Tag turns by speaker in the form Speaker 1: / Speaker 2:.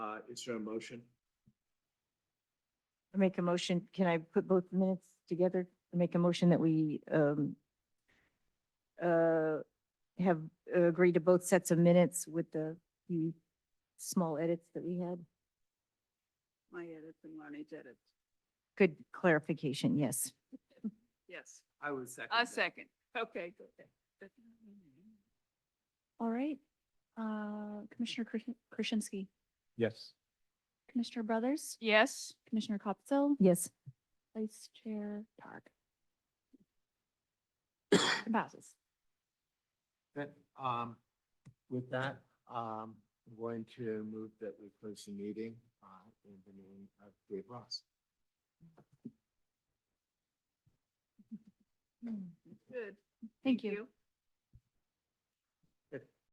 Speaker 1: Uh, is there a motion?
Speaker 2: I make a motion, can I put both minutes together? I Make a motion that we um uh have agreed to both sets of minutes with the few small edits that we had.
Speaker 3: My edits and Lonnie's edits.
Speaker 2: Good clarification, yes.
Speaker 3: Yes,
Speaker 1: I would second.
Speaker 3: I second. Okay, good.
Speaker 4: All right. Uh, Commissioner Kr- Krasinski,
Speaker 5: Yes.
Speaker 4: Commissioner Brothers,
Speaker 3: Yes,
Speaker 4: Commissioner Kopsel,
Speaker 2: Yes,
Speaker 4: Vice Chair Targ. It Passes.
Speaker 1: Then, um, with that, um, I'm going to move that we close the meeting, uh, in the name of Dave Ross.
Speaker 3: good.
Speaker 4: Hmm. Thank you.